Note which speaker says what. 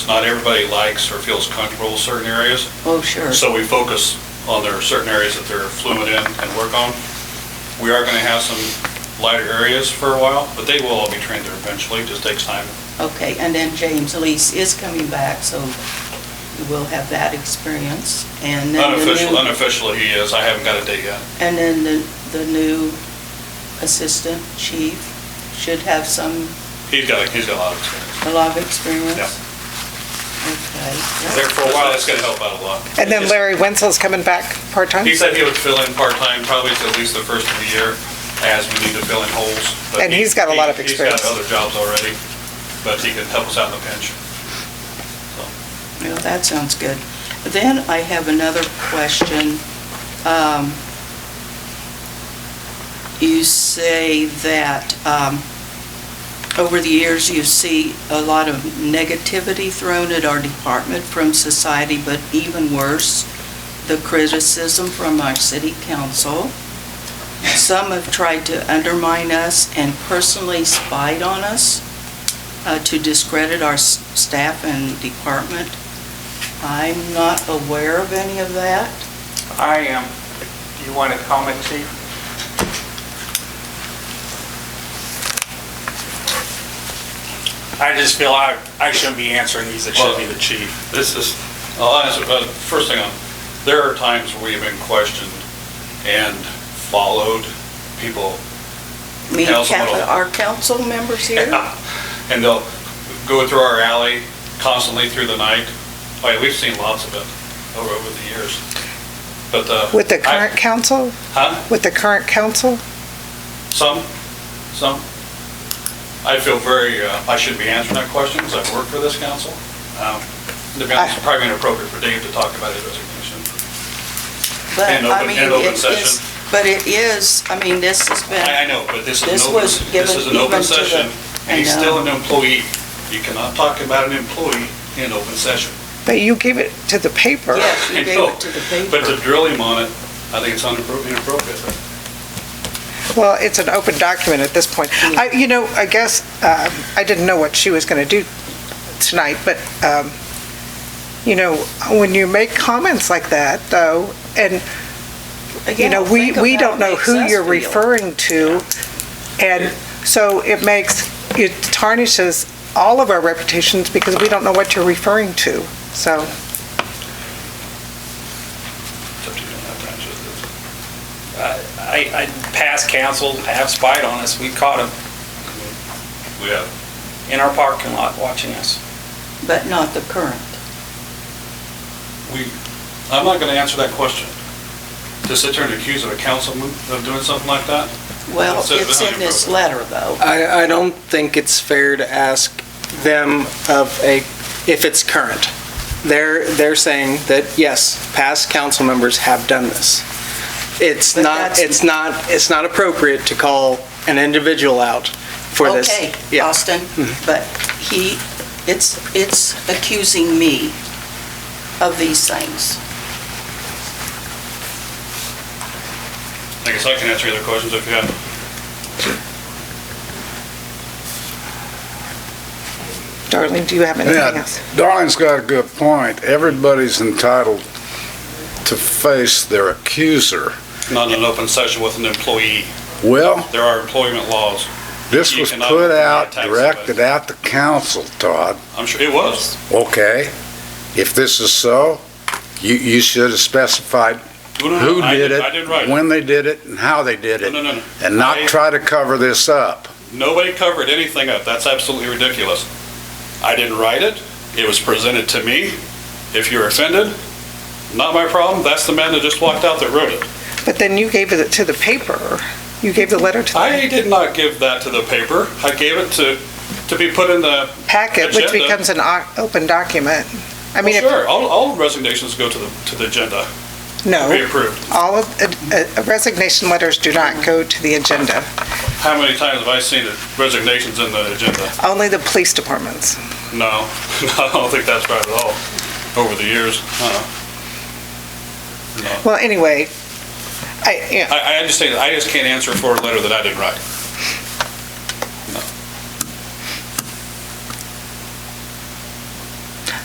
Speaker 1: Not everybody likes or feels comfortable with certain areas,
Speaker 2: Oh, sure.
Speaker 1: so we focus on their certain areas that they're fluent in and work on. We are going to have some lighter areas for a while, but they will all be trained there eventually, It just takes time.
Speaker 2: Okay, and then James Lees is coming back, so we'll have that experience. And then the
Speaker 1: Unofficial,
Speaker 2: new,
Speaker 1: unofficially he is, I haven't got a date yet.
Speaker 2: and then the, the new assistant chief should have some,
Speaker 1: He's got, he's got a lot of experience.
Speaker 2: a lot of experience.
Speaker 1: Yeah.
Speaker 2: Okay.
Speaker 1: There for a while, that's going to help out a lot.
Speaker 3: And then Larry Wenzel's coming back part-time?
Speaker 1: He said he would fill in part-time, probably till at least the first of the year, as we need to fill in holes. But
Speaker 3: And
Speaker 1: he-
Speaker 3: he's got a lot of
Speaker 1: he-
Speaker 3: experience.
Speaker 1: He's got other jobs already, but he could help us out in the pinch.
Speaker 2: Well, that sounds good. Then I have another question. Um, You say that um, over the years, you see a lot of negativity thrown at our department from society, but even worse, the criticism from our city council. Some have tried to undermine us and personally spied on us uh, to discredit our s- staff and department. I'm not aware of any of that.
Speaker 4: I am. Do you want to comment, chief? I just feel I, I shouldn't be answering these, it should be the chief.
Speaker 1: This is, I'll answer, but first thing, on- there are times we have been questioned and followed people,
Speaker 2: I mean,
Speaker 1: Council
Speaker 2: cap-
Speaker 1: member.
Speaker 2: our council members here?
Speaker 1: and they'll go through our alley constantly through the night. Oh, yeah, we've seen lots of it over, over the years. But, uh.
Speaker 3: With the
Speaker 1: I-
Speaker 3: current council?
Speaker 1: Huh?
Speaker 3: With the current council?
Speaker 1: Some, some. I feel very, uh, I should be answering that question because I've worked for this council. Um, To be honest, it's probably inappropriate for Dave to talk about his resignation.
Speaker 2: But,
Speaker 1: And
Speaker 2: I
Speaker 1: open-
Speaker 2: mean,
Speaker 1: and open
Speaker 2: it is-
Speaker 1: session.
Speaker 2: But it is, I mean, this has
Speaker 1: I, I
Speaker 2: been,
Speaker 1: know, but this is an
Speaker 2: This
Speaker 1: open,
Speaker 2: was
Speaker 1: this is an
Speaker 2: given
Speaker 1: open
Speaker 2: even to the-
Speaker 1: session,
Speaker 2: I
Speaker 1: and he's
Speaker 2: know.
Speaker 1: still an employee. You cannot talk about an employee in open session.
Speaker 3: But you gave it to the paper.
Speaker 2: yes, you gave it to the
Speaker 1: But to
Speaker 2: paper.
Speaker 1: drill him on it, I think it's unappro- inappropriate.
Speaker 3: Well, it's an open document at this point.
Speaker 1: Mm.
Speaker 3: I, you know, I guess, um, I didn't know what she was going to do tonight, but, um, you know, when you make comments like that, though, and, you know,
Speaker 2: Again,
Speaker 3: we,
Speaker 2: think
Speaker 3: we
Speaker 2: of how
Speaker 3: don't know
Speaker 2: it
Speaker 3: who
Speaker 2: makes us
Speaker 3: you're
Speaker 2: feel.
Speaker 3: referring to, and so it makes, it tarnishes all of our reputations because we don't know what you're referring to, so.
Speaker 1: It's up to you to have time to-
Speaker 4: I, I, past council have spied on us, we caught them
Speaker 1: We have,
Speaker 4: in our parking lot watching us.
Speaker 2: But not the current.
Speaker 1: we, I'm not going to answer that question. To sit there and accuse a councilman of doing something like that?
Speaker 2: Well,
Speaker 1: It says
Speaker 2: it's
Speaker 1: value
Speaker 2: in this
Speaker 1: program.
Speaker 2: letter, though.
Speaker 5: I, I don't think it's fair to ask them of a, if it's current. They're, they're saying that, yes, past council members have done this. It's
Speaker 2: But
Speaker 5: not,
Speaker 2: that's-
Speaker 5: it's not, it's not appropriate to call an individual out for this.
Speaker 2: Okay,
Speaker 5: Yeah.
Speaker 2: Austin,
Speaker 3: Mm-hmm.
Speaker 2: but he, it's, it's accusing me of these things.
Speaker 1: I guess I can answer your other questions if you have.
Speaker 3: Darling, do you have anything
Speaker 6: Yeah,
Speaker 3: else?
Speaker 6: Darlene's got a good point. Everybody's entitled to face their accuser.
Speaker 1: Not in an open session with an employee.
Speaker 6: Well,
Speaker 1: There are employment laws.
Speaker 6: this
Speaker 1: You
Speaker 6: was
Speaker 1: cannot
Speaker 6: put out,
Speaker 1: attack
Speaker 6: directed at the council, Todd.
Speaker 1: I'm sure it was.
Speaker 6: Okay, if this is so, you, you should have specified
Speaker 1: No, no, no,
Speaker 6: who
Speaker 1: I
Speaker 6: did
Speaker 1: I did
Speaker 6: it,
Speaker 1: right.
Speaker 6: when they did it, and how they did
Speaker 1: No,
Speaker 6: it,
Speaker 1: no, no, no.
Speaker 6: and not
Speaker 1: I-
Speaker 6: try to cover this up.
Speaker 1: Nobody covered anything up. That's absolutely ridiculous. I didn't write it. It was presented to me. If you're offended, not my problem. That's the man that just walked out that wrote it.
Speaker 3: But then you gave it to the paper. You gave the letter to the
Speaker 1: I did not give that to the paper. I gave it to, to be put in the,
Speaker 3: packet, which
Speaker 1: Agenda.
Speaker 3: becomes an o- open document. I mean,
Speaker 1: well,
Speaker 3: if-
Speaker 1: sure, all, all resignations go to the, to the agenda, to be
Speaker 3: no,
Speaker 1: approved.
Speaker 3: all of, uh, uh, resignation letters do not go to the agenda,
Speaker 1: How many times have I seen the resignations in the agenda?
Speaker 3: only the police departments.
Speaker 1: No, I don't think that's right at all, over the years. uh-uh.
Speaker 3: Well, anyway, I, yeah,
Speaker 1: I, I just say, that I just can't answer for a letter that I didn't write.